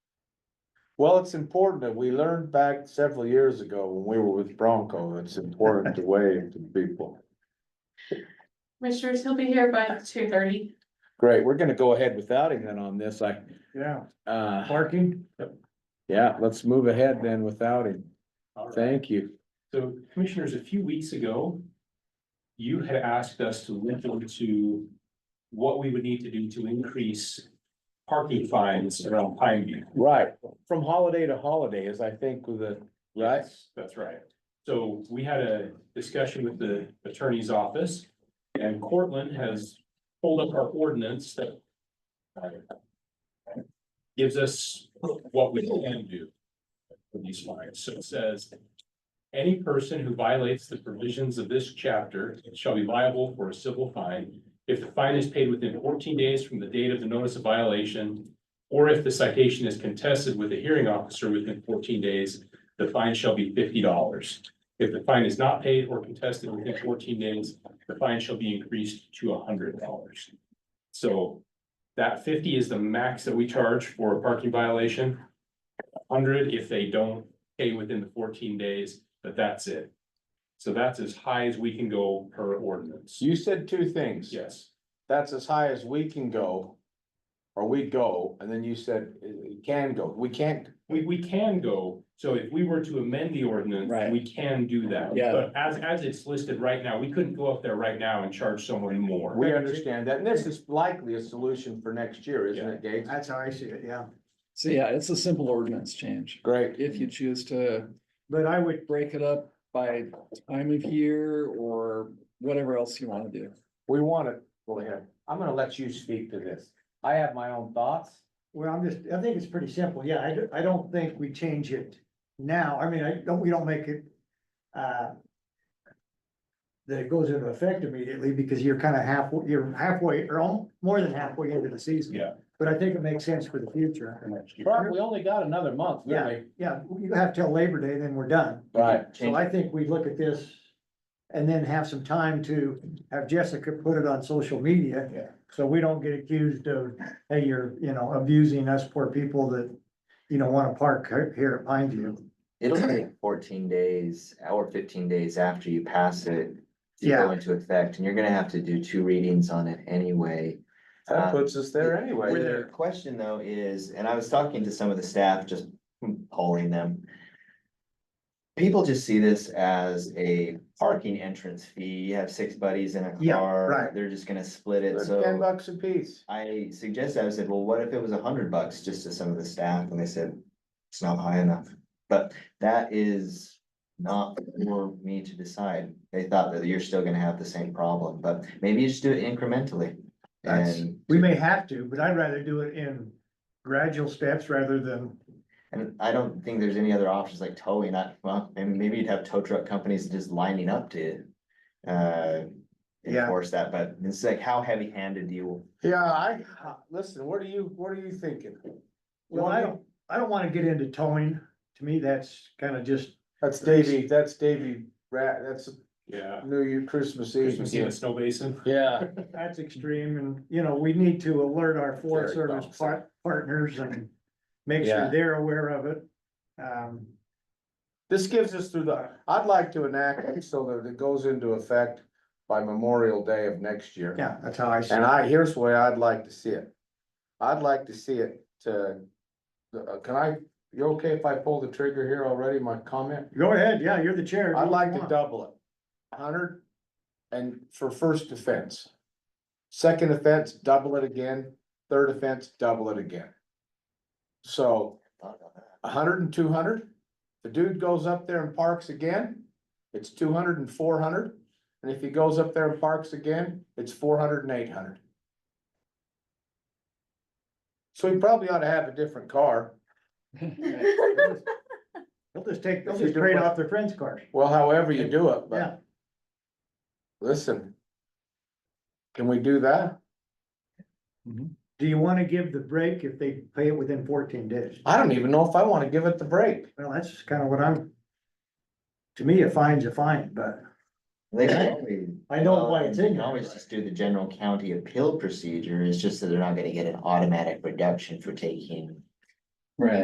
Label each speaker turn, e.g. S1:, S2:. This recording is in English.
S1: Well, it's important that we learned back several years ago when we were with Bronco, it's important to wave to people.
S2: Commissioners, he'll be here by two thirty.
S1: Great, we're gonna go ahead without him then on this, I,
S3: Yeah,
S1: uh,
S3: parking.
S1: yeah, let's move ahead then without him.
S4: All right.
S1: Thank you.
S4: So commissioners, a few weeks ago, you had asked us to look into what we would need to do to increase parking fines around Pine View.
S1: Right, from holiday to holiday is I think with the, right?
S4: Yes, That's right. So we had a discussion with the attorney's office and Cortland has pulled up our ordinance that uh, gives us what we can do for these fines. So it says, any person who violates the provisions of this chapter shall be liable for a civil fine if the fine is paid within fourteen days from the date of the notice of violation or if the citation is contested with a hearing officer within fourteen days the fine shall be fifty dollars. If the fine is not paid or contested within fourteen days, the fine shall be increased to hundred dollars. So that fifty is the max that we charge for a parking violation. Hundred if they don't pay within the fourteen days, but that's it. So that's as high as we can go per ordinance.
S1: You said two things.
S4: Yes,
S1: That's as high as we can go. Or we go, and then you said uh, it can go, we can't,
S4: we, we can go, so if we were to amend the ordinance,
S5: Right.
S4: we can do that.
S5: Yeah.
S4: But as, as it's listed right now, we couldn't go up there right now and charge someone more.
S1: we understand that, and this is likely a solution for next year, isn't it, Gates?
S3: That's how I see it, yeah.
S5: So yeah, it's a simple ordinance change.
S1: Great.
S5: If you choose to
S3: But I would,
S5: break it up by time of year or whatever else you wanna do.
S1: We want it, go ahead. I'm gonna let you speak to this. I have my own thoughts.
S3: well, I'm just, I think it's pretty simple. Yeah, I, do- I don't think we change it now. I mean, I don't, we don't make it, uh, that it goes into effect immediately because you're kind of halfway, you're halfway, or al- more than halfway into the season.
S4: Yeah.
S3: But I think it makes sense for the future.
S1: Bert, we only got another month, really.
S3: Yeah, you have till Labor Day, then we're done.
S1: Right.
S3: So I think we look at this and then have some time to have Jessica put it on social media.
S1: Yeah.
S3: So we don't get accused of, hey, you're, you know, abusing us poor people that, you know, wanna park he- here at Pine View.
S6: It'll take fourteen days or fifteen days after you pass it. To go
S3: Yeah.
S6: into effect, and you're gonna have to do two readings on it anyway.
S1: That puts us Uh, there
S6: The
S1: anyway.
S6: question though is, and I was talking to some of the staff, just polling them. People just see this as a parking entrance fee. You have six buddies in a
S3: Yeah,
S6: car.
S3: right.
S6: They're just gonna split it, so.
S1: Ten bucks a piece.
S6: I suggested, I said, well, what if it was a hundred bucks just to some of the staff? And they said, it's not high enough. But that is not for me to decide. They thought that you're still gonna have the same problem, but maybe you just do it incrementally.
S3: That's-
S6: And,
S3: We may have to, but I'd rather do it in gradual steps rather than,
S6: and I don't think there's any other options like towing, I, well, and maybe you'd have tow truck companies just lining up to uh,
S3: Yeah.
S6: enforce that, but it's like, how heavy handed do you?
S1: Yeah, I, Uh, listen, what are you, what are you thinking?
S3: well, I don't, I don't wanna get into towing. To me, that's kinda just,
S1: That's Davy, that's Davy Rat, that's
S4: Yeah.
S1: New Year, Christmas Eve.
S4: Christmas Eve in the snow basin.
S1: Yeah,
S3: that's extreme and, you know, we need to alert our Forest
S1: Very
S3: Service
S1: troublesome.
S3: par- partners and make sure
S1: Yeah.
S3: they're aware of it. Um,
S1: this gives us through the, I'd like to enact it so that it goes into effect by Memorial Day of next year.
S3: yeah, that's how I see
S1: And
S3: it.
S1: I, here's the way I'd like to see it. I'd like to see it to, uh, can I, you okay if I pull the trigger here already, my comment?
S3: Go ahead, yeah, you're the chair.
S1: I'd
S3: Do
S1: like
S3: what
S1: to
S3: you
S1: double it. Hundred and for first offense. Second offense, double it again. Third offense, double it again. So
S6: thought about that?
S1: a hundred and two hundred. The dude goes up there and parks again, it's two hundred and four hundred. And if he goes up there and parks again, it's four hundred and eight hundred. So he probably ought to have a different car.
S3: want. They'll just take, they'll
S1: If you
S3: just
S1: do
S3: trade
S1: what-
S3: off their friend's car.
S1: Well, however you do it,
S3: Yeah.
S1: but listen. Can we do that?
S3: Do you wanna give the break if they pay it within fourteen days?
S1: I don't even know if I want to give it the break.
S3: Well, that's kinda what I'm. To me, a fine's a fine, but
S6: They can always
S3: I know why
S6: Well,
S3: it's
S6: you
S3: in
S6: can
S3: there.
S6: Um, Always just do the general county appeal procedure, it's just that they're not gonna get an automatic reduction for taking
S5: Right.